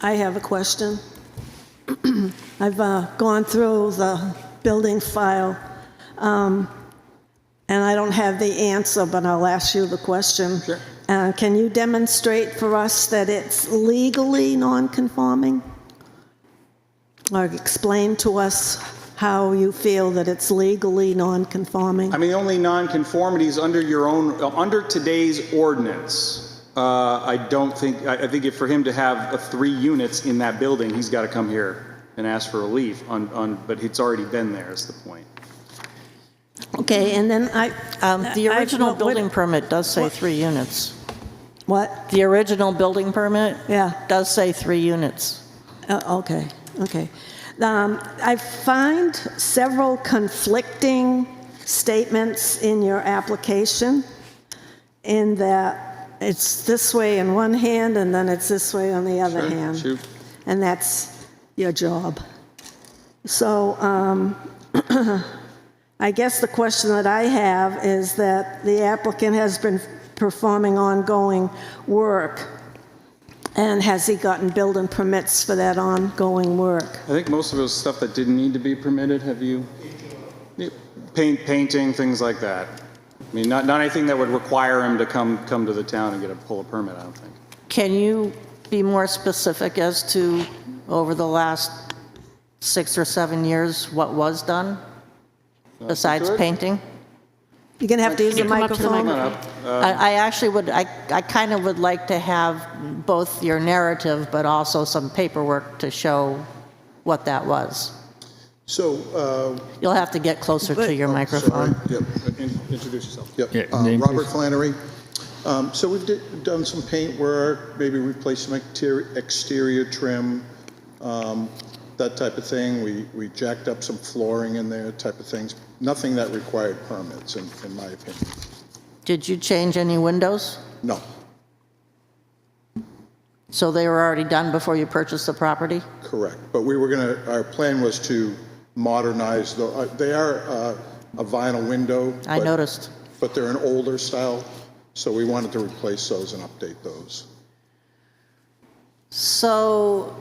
I have a question. I've uh, gone through the building file, um, and I don't have the answer, but I'll ask you the question. Sure. Uh, Can you demonstrate for us that it's legally non-conforming? Or explain to us how you feel that it's legally non-conforming? I mean, the only nonconformities under your own, uh, under today's ordinance, uh, I don't think, I I think if for him to have uh, three units in that building, he's got to come here and ask for relief on, on, but it's already been there, is the point. Okay, and then I... Um, The I- original what- building permit does say three units. What? The original building permit Yeah. does say three units. Uh, Okay, okay. Um, I find several conflicting statements in your application in that it's this way in one hand and then it's this way on the other Sure, hand. shoot. And that's your job. So um, I guess the question that I have is that the applicant has been performing ongoing work and has he gotten building permits for that ongoing work? I think most of it was stuff that didn't need to be permitted, have you? Yeah, Paint, painting, things like that. I mean, not, not anything that would require him to come, come to the town and get a, pull a permit, I don't think. Can you be more specific as to, over the last six or seven years, what was done besides sure. painting? You're going to have to use a you come up to the microphone. Come on up. I I actually would, I I kind of would like to have both your narrative, but also some paperwork to show what that was. So, uh, You'll have to get closer to your Oh, sorry, microphone. yep, uh, Introduce yourself. Yeah, yep. Uh, name, Robert please. Flannery. Um, So we've di- done some paint work, maybe replaced some exterior- exterior trim, um, that type of thing. We we jacked up some flooring in there, type of things. Nothing that required permits, in in my opinion. Did you change any windows? No, So they were already done before you purchased the property? correct. But we were going to, our plan was to modernize, the- uh, they are uh, a vinyl window. I but- noticed. But they're an older style, so we wanted to replace those and update those. So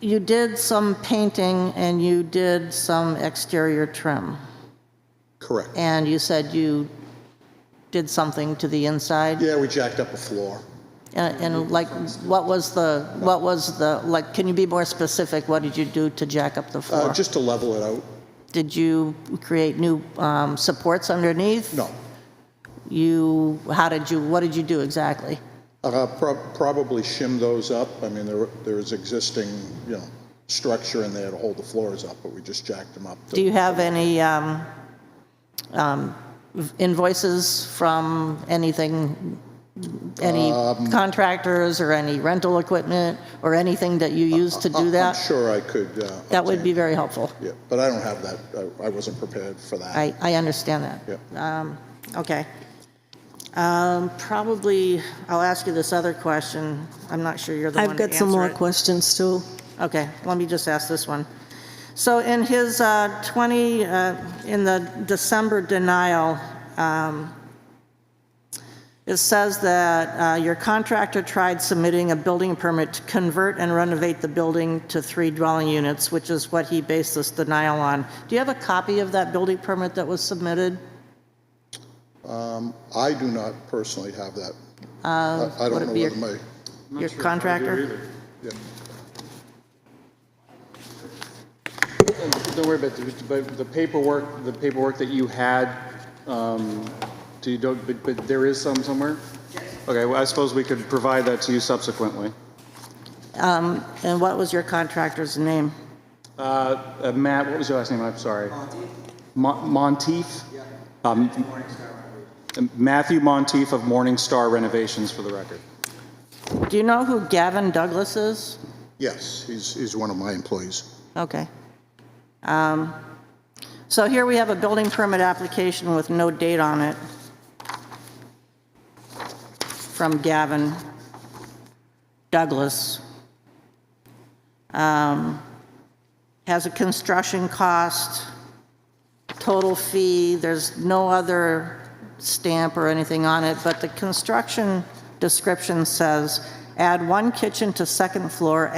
you did some painting and you did some exterior trim, Correct. and you said you did something to the inside? Yeah, we jacked up a floor. And and like, what was the, what was the, like, can you be more specific? What did you do to jack up the Uh, floor? just to level it out. Did you create new um, supports underneath? No. You, how did you, what did you do exactly? Uh, prob- probably shim those up. I mean, there, there is existing, you know, structure in there to hold the floors up, but we just jacked them up. to- Do you have any um, um, invoices from anything, any Um, contractors or any rental equipment or anything that you use to I- do that? I'm sure I could. Uh, That would be obtain- very helpful. Yeah, but I don't have that. I, I wasn't prepared for that. I, I understand that. Yeah. Okay. Um, Probably, I'll ask you this other question. I'm not sure you're the one to I've answer got some more it. questions, too. Okay, let me just ask this one. So in his uh, 20, uh, in the December denial, um, it says that uh, your contractor tried submitting a building permit to convert and renovate the building to three dwelling units, which is what he based this denial on. Do you have a copy of that building permit that was submitted? I do not personally have that. I I would don't it know be a- whether my, Uh, Your contractor? yeah. Don't worry about the, but the paperwork, the paperwork that you had, um, do you don't, but, but there is some somewhere? Okay, well, I suppose we could provide that to you subsequently. And what was your contractor's name? Uh, uh, Matt, what was your last name? I'm sorry. Mon- Monteith? Um, Matthew Monteith of Morning Star Renovations, for the record. Do you know who Gavin Douglas is? Yes, he's, he's one of my employees. Okay. Um, So here we have a building permit application with no date on it from Gavin Douglas. Um, Has a construction cost, total fee, there's no other stamp or anything on it, but the construction description says, add one kitchen to second floor,